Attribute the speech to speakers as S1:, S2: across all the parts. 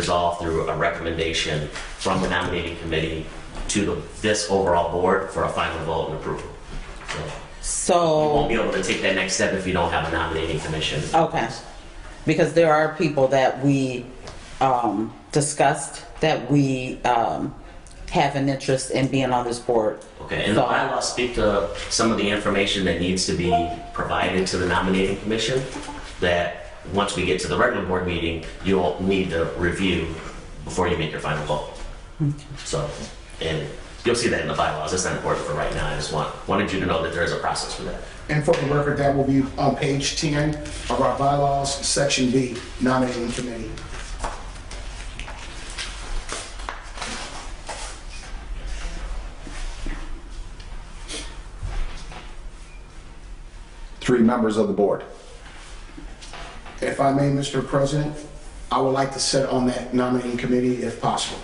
S1: resolved through a recommendation from the nominating committee to the- this overall board for a final vote and approval. So You won't
S2: So,
S1: be able to take that next step if you don't have a nominating commission.
S2: okay, because there are people that we um, discussed that we um, have an interest in being on this board.
S1: Okay, and the
S2: So-
S1: bylaws speak to some of the information that needs to be provided to the nominating commission that, once we get to the regular board meeting, you'll need to review before you make your final vote. So, and you'll see that in the bylaws, it's not important for right now, I just want, wanted you to know that there is a process for that.
S3: And for the record, that will be on page 10 of our bylaws, section B, nominating committee.
S4: three members of the board.
S3: If I may, Mr. President, I would like to sit on that nominating committee if possible.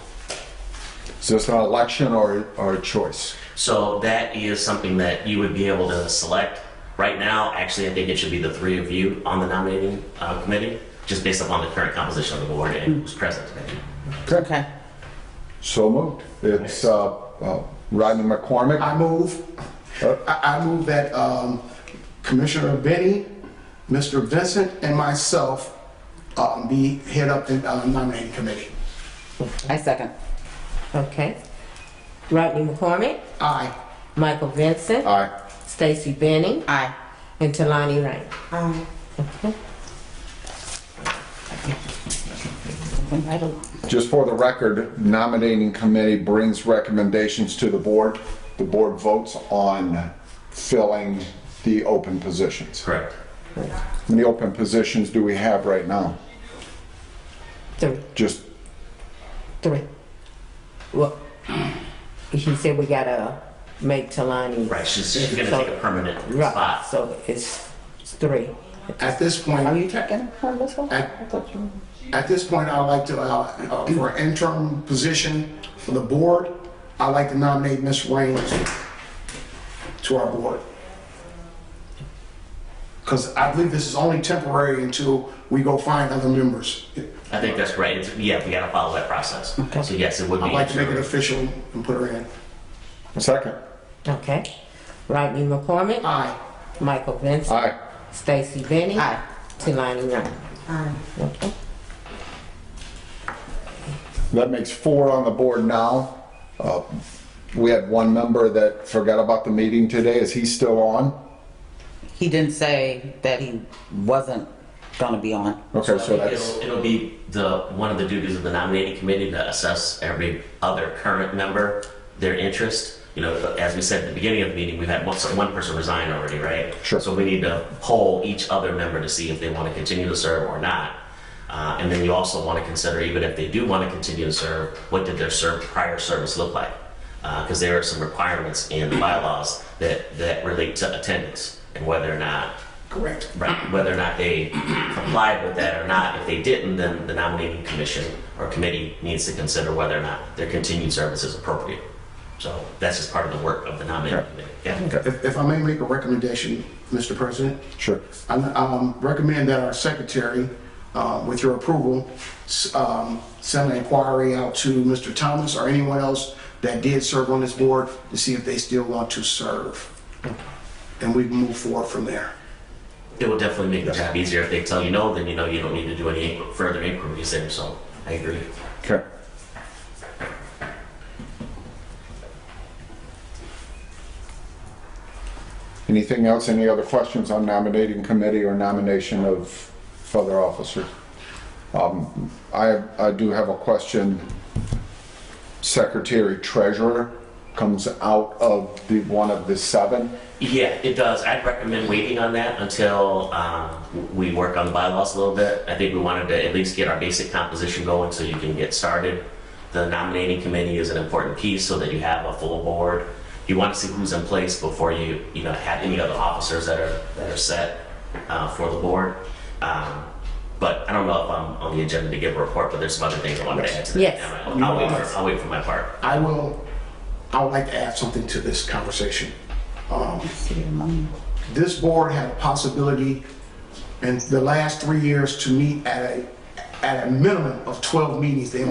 S4: Is this an election or, or a choice?
S1: So that is something that you would be able to select. Right now, actually, I think it should be the three of you on the nominating uh, committee, just based upon the current composition of the board and who's present today.
S3: Mm-hmm.
S2: Okay,
S4: So moved. It's uh, uh, Rodney McCormick.
S3: I move, I I move that um, Commissioner Benny, Mr. Vincent, and myself um, be head up the uh, nominating committee.
S2: I second.
S5: Okay. Rodney McCormick,
S3: Aye.
S5: Michael Vincent,
S4: Aye.
S5: Stacy Benning,
S2: Aye.
S5: and Talani Rain.
S4: Just for the record, nominating committee brings recommendations to the board. The board votes on filling the open positions.
S1: Correct.
S4: How many open positions do we have right now?
S5: Three,
S4: Just
S5: three. Well, he said we gotta make Talani.
S1: Right, she's, she's gonna take a permanent
S5: Right,
S1: spot.
S5: so it's, it's three.
S3: At this point.
S2: Are you taking it from this one?
S3: I-
S2: I thought you
S3: At this point, I'd like to, uh, uh, for an interim position for the board, I'd like to nominate Ms. Reynolds to our board. Because I believe this is only temporary until we go find other members.
S1: I think that's right. It's, yeah, we gotta follow that process. So yes, it would be.
S3: I'd like to make it official and put her in.
S4: second.
S5: Okay. Rodney McCormick,
S3: Aye.
S5: Michael Vincent,
S4: Aye.
S1: Uh,
S5: Stacy Benning,
S2: Aye.
S5: Talani Rain. Okay.
S4: That makes four on the board now. Uh, we had one member that forgot about the meeting today. Is he still on?
S2: He didn't say that he wasn't gonna be on.
S4: Okay, so that's
S1: It'll, it'll be the, one of the duties of the nominating committee to assess every other current member, their interest. You know, as we said at the beginning of the meeting, we've had one, so one person resign already, right?
S4: Sure.
S1: So we need to poll each other member to see if they want to continue to serve or not. Uh, and then you also want to consider, even if they do want to continue to serve, what did their serve, prior service look like? Because there are some requirements in the bylaws that, that relate to attendance and whether or not
S3: Correct.
S1: Right, whether or not they complied with that or not. If they didn't, then the nominating commission or committee needs to consider whether or not their continued service is appropriate. So that's just part of the work of the nominating committee. Yeah.
S3: If if I may make a recommendation, Mr. President?
S4: sure.
S3: I um, recommend that our secretary, uh, with your approval, s- um, send an inquiry out to Mr. Thomas or anyone else that did serve on this board to see if they still want to serve. And we can move forward from there.
S1: It will definitely make the job easier. If they tell you no, then you know you don't need to do any inqu- further inquiries there, so I agree.
S4: Okay. Anything else, any other questions on nominating committee or nomination of further officers? Um, I, I do have a question. Secretary Treasurer comes out of the, one of the seven.
S1: Yeah, it does. I'd recommend waiting on that until um, we work on the bylaws a little bit. I think we wanted to at least get our basic composition going so you can get started. The nominating committee is an important piece so that you have a full board. You want to see who's in place before you, you know, have any other officers that are, that are set uh, for the board. Um, But I don't know if I'm on the agenda to give a report, but there's some other things I wanted to add to that.
S5: Yes.
S1: I'll I'll wait for, I'll wait for my part.
S3: I will, I would like to add something to this conversation. Um, This board had a possibility in the last three years to meet at a at a minimum of 12 meetings, they